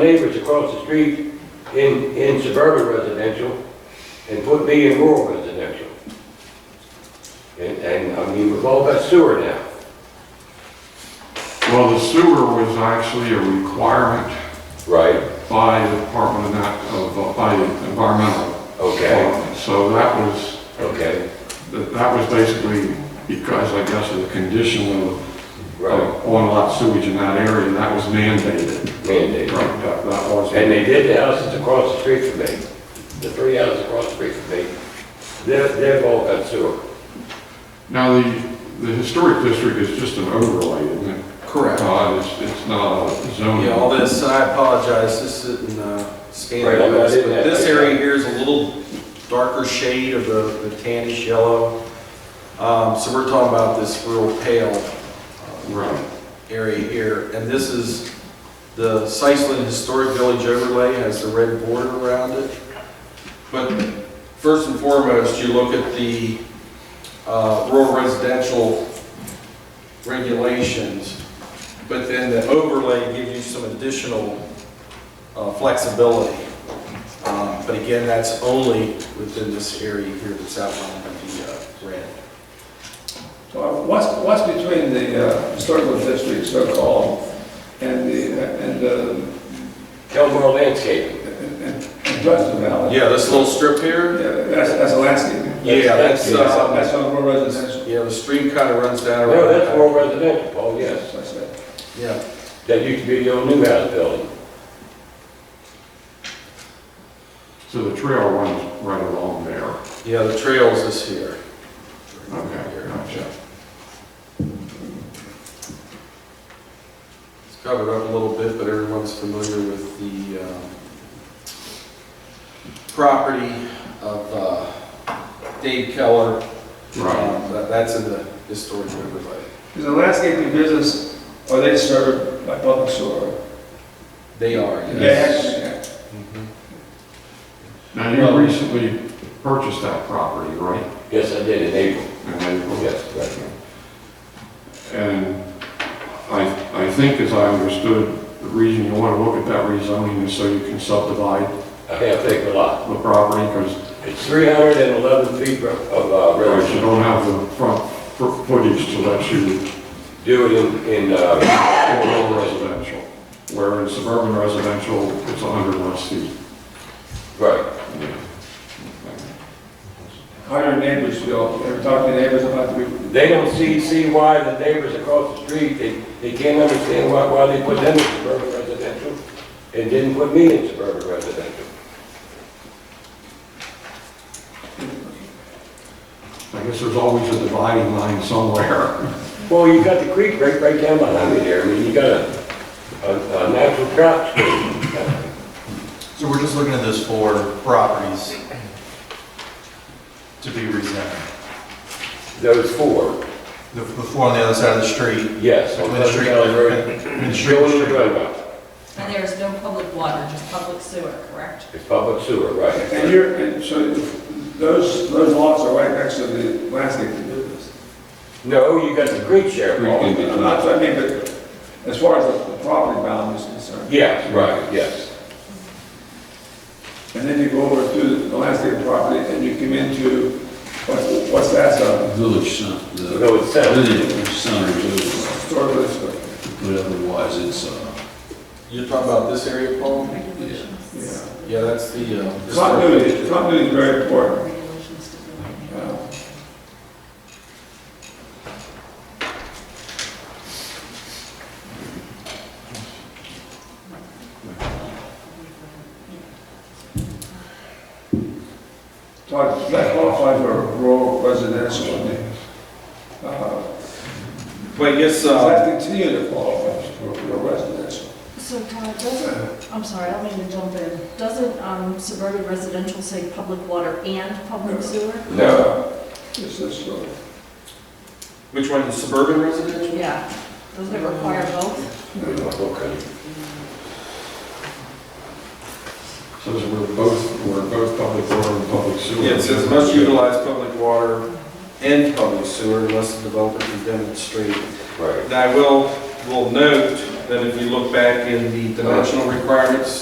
neighbors across the street in, in suburban residential and put me in rural residential. And, and, I mean, we've all got sewer now. Well, the sewer was actually a requirement Right. by the Department of, Nat- of, uh, by the environmental. Okay, Department. So that was, okay, that that was basically because, I guess, of the condition of right, on-lot sewage in that area, and that was mandated. mandate. Right, that, that was. And they did the houses across the street from me, the three houses across the street from me. They're, they've all got sewer. Now, the, the historic district is just an overlay, isn't it? Correct. Uh, it's, it's not a zoning. Yeah, all this, I apologize, this isn't uh, Right, scanning, I'm not but in that. this area here is a little darker shade of the the tannish yellow. Um, So we're talking about this real pale uh, Right. area here, and this is, the Sisseton Historic Village overlay has the red border around it. But first and foremost, you look at the uh, rural residential regulations, but then the overlay gives you some additional uh, flexibility. Um, But again, that's only within this area here that's outlined by the uh, red. So uh, What's, what's between the uh, historical district, so-called, and the, and, uh, Kelmore Landscaping. and and Hudson Valley? Yeah, this little strip here, Yeah, That's, that's landscaping. yeah, That's- that's, That's, uh, that's on rural residential. yeah, the stream kind of runs down No, that's around. rural residential, Paul, yes. That's it. Yeah, That used to be the old new house building. So the trail runs right along there. yeah, the trails is here. Okay, gotcha. It's covered up a little bit, but everyone's familiar with the um, property of uh, Dave Keller. Right. Um, that- That's in the historic overlay. Is the landscaping business, are they served by public sewer? They are, yes. Yes. Mhm. Now, you recently purchased that property, right? Yes, I did in April, In April? yes, right. And I, I think, as I understood, the reason you want to look at that rezoning is so you can subdivide A half acre lot. the property, because It's 311 feet of uh, road. you don't have the front fo- footage to let you Do it in, in, uh, go over residential. Where in suburban residential, it's 100 less feet. right. How do your neighbors feel? Ever talk to neighbors about the, They don't see, see why the neighbors across the street, they, they can't understand why, why they put them in suburban residential and didn't put me in suburban residential. I guess there's always a dividing line somewhere. Well, you got the creek right, right down behind me there, I mean, you got a, a, a natural drop stream. So we're just looking at those four properties to be rezoned. Those four, The, the four on the other side of the street. yes. on Between the Pleasant street. Valley Road. between the street and Joey the street. Road, And there is no public water, just public sewer, correct? it's public sewer, and right. you're, and so those, those lots are right next to the landscaping business? No, you got the creek share, Paul. I'm not, I mean, but as far as the the property bound is concerned, Yes, right, yes. and then you go over to the landscape property and you come into, what's, what's that uh, zone? village center, the Village center. village center, is Historic district. over, but otherwise it's, uh, You're talking about this area, Paul? Regulations. Yeah. Yeah, that's the. uh, historic- Continuity, continuity is very important. Regulations to do it. Uh, Todd, does that qualifies for rural residential, I mean, uh, But yes, does uh, that continue to qualify for rural residential? So Todd, doesn't, I'm sorry, I don't mean to jump in. Doesn't um, suburban residential say public water and public sewer? No. It's this uh, one. which one, the suburban residential? Yeah. Doesn't it require both? Okay. So we're both, we're both public water and public sewer. Yeah, it says must utilize public water and public sewer unless the developer can demonstrate. Right. Now, I will, will note Then if you look back in the dimensional requirements,